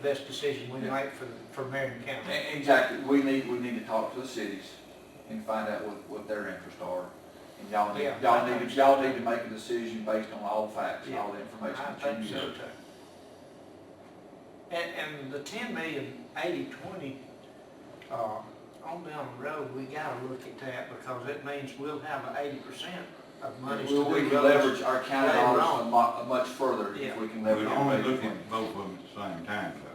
the best decision we make for, for Marion County. E- Exactly, we need, we need to talk to the cities and find out what, what their interests are. And y'all need, Yeah. y'all need, to- y'all need to make a decision based on all facts, all the information I that think you so know. too. And, and the ten million, eighty, twenty, uh, on down the road, we gotta look at that because it means we'll have eighty percent of money to We- We do can roads. leverage our county Right, dollars wrong. a lot, much further if Yeah. we can We're leverage. only it. looking at both of them at the same time, though.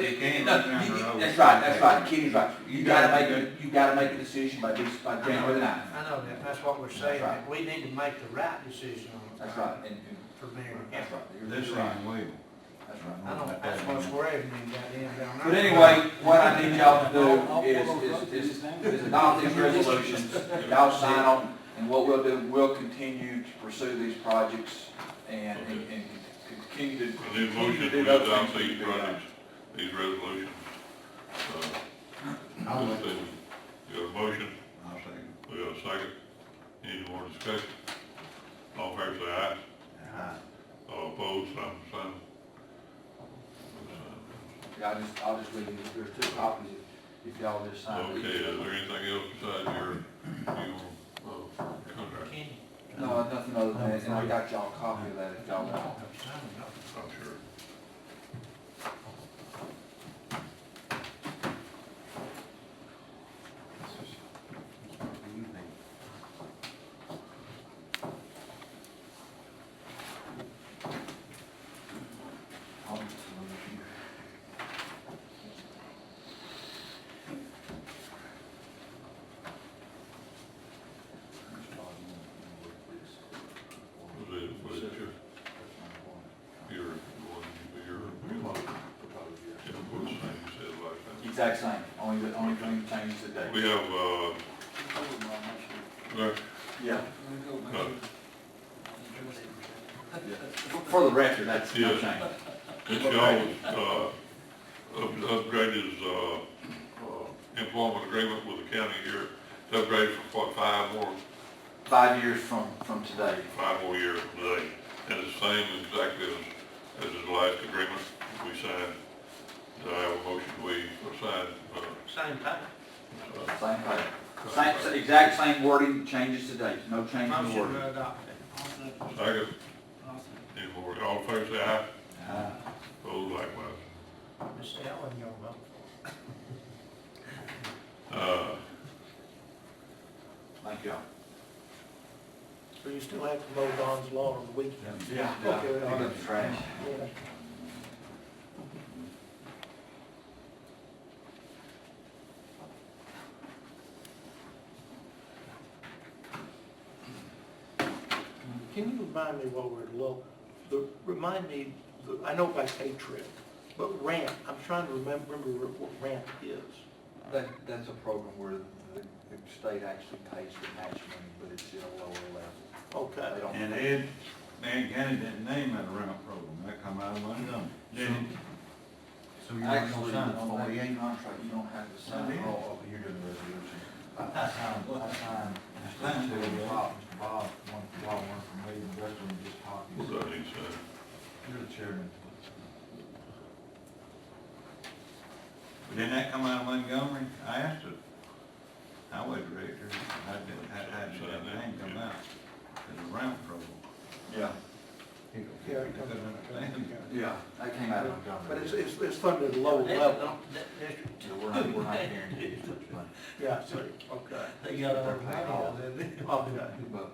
You can't Uh, No, look down you- the road. That's right, that's right, Kenny's right. You You gotta gotta make, a- you gotta make a decision by this, by January the ninth. I know that, that's what we're saying, that we need to make the right decision on it That's right, and, for Marion County. and, that's right. You're- This you're right. thing will. That's right. I don't, that's what's worrying me about them down there. But anyway, what I need y'all to do is, is, is, is adopt these resolutions, y'all sign on, and what we'll do, we'll continue to pursue these projects and, and, and continue to. I need a continue motion to do to those adopt things that these we do. projects, these resolutions. I'll Uh, make this it. thing. You got a motion, I'll say, we got a second, any more discussion? All in favor say aye, uh, all opposed, same sign. Uh, Yeah, I just, I'll just leave you, there's two copies, if if y'all just sign Okay, uh, these. is there anything else besides your, your, uh, contract? Kenny, No, nothing other than that, and I got y'all a copy of that if y'all want. I'm signing off. I'm sure. I'll just leave you. Was it, was it your, your, your, your, yeah, what was the name you said last time? Exact same, only, the only thing that changes the date. We have, uh, Lex- Yeah, no, for for the record, that's no Yeah. change. it's y'all's, uh, up- upgrade his, uh, uh, employment agreement with the county here, It's upgraded for what, five more, Five years from, from today. five more years today. And it's the same exactly as, as his last agreement we signed. Do I have a motion we sign, uh, Same thing. Same thing. Same, s- exact same wording, changes to date, no change in Motion wording. to adopt it. second, any more, all in favor say aye, Uh, opposed likewise. Miss Ellen, you vote for Uh, Thank y'all. So you still have to mow Don's lawn on the weekend? Yeah. Okay, Pick all up right. the trash. Can you remind me while we're low, the, remind me, the- I know by pay trip, but ramp, I'm trying to remem- remember what ramp is. That, that's a program where the, the state actually pays the match money, but it's at a lower level. Okay. They don't- And Ed, Marion County didn't name that ramp program, that come out of one of them, didn't it? So you're not gonna Actually, sign on that forty-eight? contract, you don't have to sign it all. You're doing the resolution. I I signed, I signed, I signed two, Bob, Bob, one for Bob, one for me, and the rest of them just copies. what do I need to say? You're the chairman. But Didn't that come out of Montgomery? I asked the highway director, how did, how, how did that name come out? The ramp program. Yeah, They couldn't understand. yeah, that came out of Montgomery. But it's, it's, it's funded at a lower They level. don't- that- that's- So we're not, we're not guaranteed as much money. Yeah, so, okay, They got all the money out of it. okay. But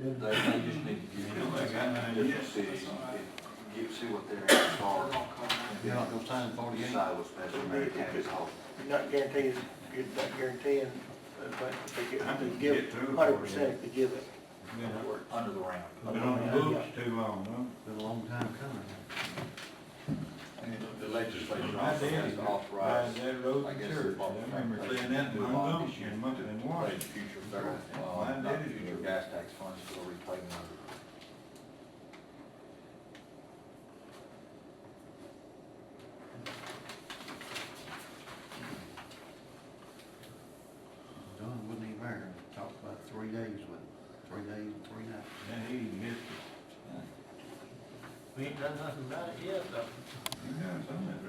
they, they just need to give you a different city, give, see what their interests are. You're not gonna sign forty-eight? Decide what's best for Marion County's health. You're not guaranteeing, you're not guaranteeing, uh, but if they I get, didn't they give, get through it. hundred percent if they give it. Been on- Under the ramp. Been on the books too long, Been a long time coming. And The legislature huh? also has to authorize, Right, that road I to guess church, it's all- I remember seeing that in Move on Montgomery, this year. in Montgomery, in like Washington. future federal, uh, not future gas tax funds for the repayment of it. Don wasn't even there, We talked about three days with him, three days and three nights. And he missed it. We ain't done nothing about it yet, though. He done something